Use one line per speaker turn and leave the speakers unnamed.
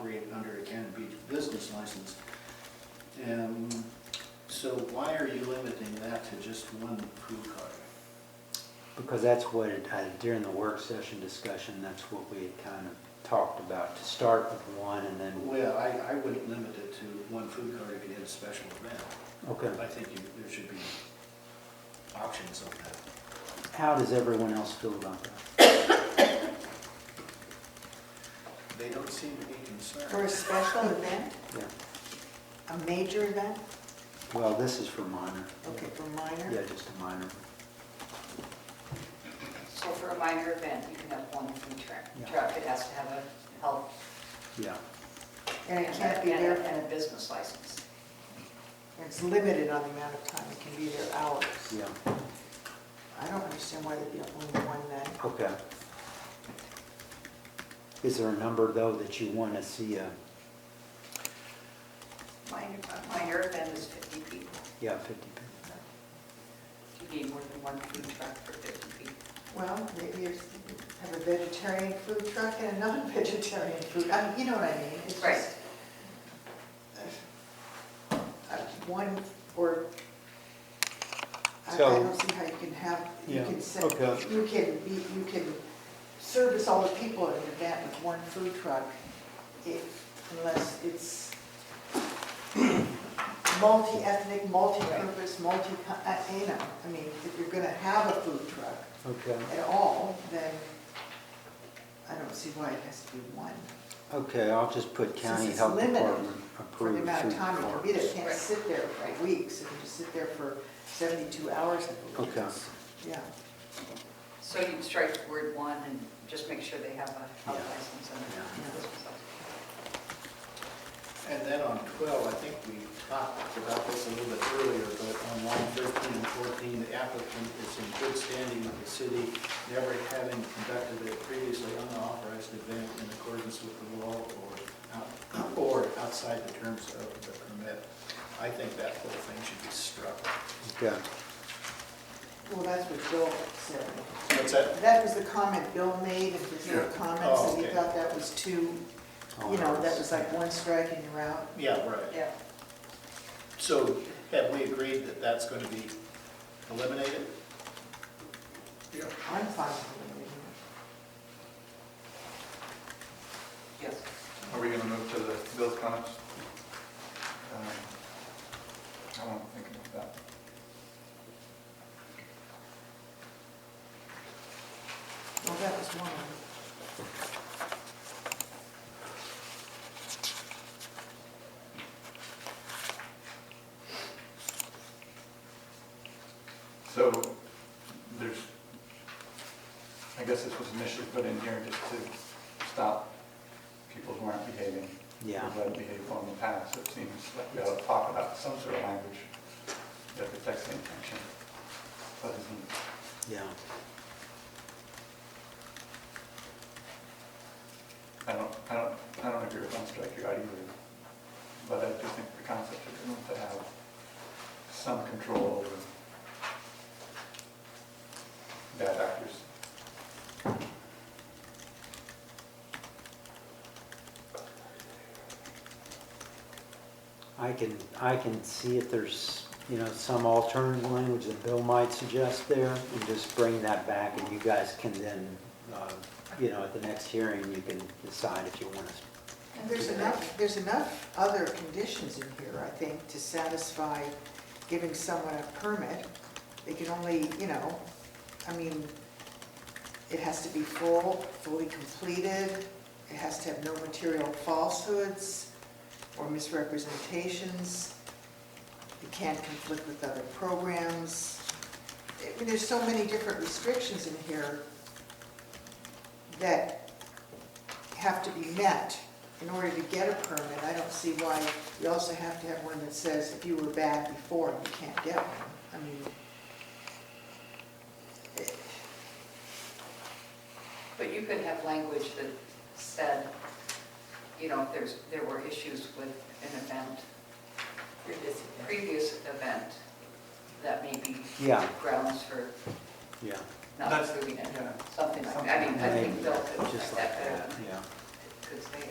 created under a Cannon Beach business license. And so why are you limiting that to just one food cart?
Because that's what, it- uh, during the work session discussion, that's what we had kind of talked about, to start with one and then,
Well, I, I wouldn't limit it to one food cart if you did a special event.
okay.
I think you, there should be options on that.
How does everyone else feel about that?
They don't seem to be
For a
concerned.
special event,
Yeah.
a major event,
Well, this is for minor.
okay, for minor?
Yeah, just a minor.
So for a minor event, you can have one food truck.
Yeah.
Truck, it has to have a health.
Yeah.
And it can't be
and a-
there,
And a
for-
business license.
it's limited on the amount of time, it can be there hours.
Yeah,
I don't understand why there'd be only one night.
okay. Is there a number, though, that you want to see, uh,
Minor, a minor event is 50 people.
yeah, 50 people?
You need more than one food truck for 50 people.
Well, maybe you have a vegetarian food truck and a non-vegetarian food, I mean, you know what I mean? It's
Right.
just, uh, uh, One, or, I I
So-
don't see how you can have, you
Yeah,
can set,
okay.
you can be, you can service all the people at an event with one food truck if, unless it's multi-ethnic, multi-purpose, multi, uh, you know, I mean, if you're gonna have a food truck,
Okay,
at all, then I don't see why it has to be one.
okay, I'll just put county
it's
health
limited
department
For the
approved
amount of
food
time it can be there,
courts.
it can't sit there for weeks, it can just sit there for 72 hours, I believe.
Okay.
Yeah,
So you can strike the word one and just make sure they have a health
Yeah.
license and
Yeah.
a business license.
And then on 12, I think we talked about this a little bit earlier, but on line 13 and 14, the applicant is in good standing with the city, never having conducted a previously unauthorized event in accordance with the law or out- or outside the terms of the permit. I think that whole thing should be struck.
Okay,
well, that's what Bill said.
What's that?
That was the comment Bill made in his little
Yeah.
comments,
Oh,
and he
okay.
thought that was too, you know, that was like one strike and you're out.
Yeah, right.
Yeah.
So have we agreed that that's going to be eliminated? Yeah.
I'm fine with it.
Yes.
Are we gonna move to the Bill's comments? Um, Uh, I won't think about that.
Well, that was one.
So there's, I guess this was initially put in here just to stop people who aren't behaving.
Yeah.
Who have behaved well in the past. It seems like we ought to talk about some sort of language that protects the intention. But isn't,
Yeah,
I don't, I don't, I don't agree with one strike you out either. But I do think the concept is we want to have some control over bad actors.
I can, I can see if there's, you know, some alternative language that Bill might suggest there, and just bring that back, and you guys can then, uh, you know, at the next hearing, you can decide if you want us.
And there's enough, there's enough other conditions in here, I think, to satisfy giving someone a permit. They can only, you know, I mean, it has to be full, fully completed, it has to have no material falsehoods or misrepresentations, it can't conflict with other programs. I mean, there's so many different restrictions in here that have to be met in order to get a permit, I don't see why you also have to have one that says if you were bad before, you can't get one. I mean, it-
But you could have language that said, you know, if there's, there were issues with an event, previous event, that may be
Yeah.
grounds for
Yeah.
not
That's-
approving it,
yeah.
something like, that. I mean, I think
Maybe,
Bill could
Just
make
like
that better
that,
than
yeah.
I could say it.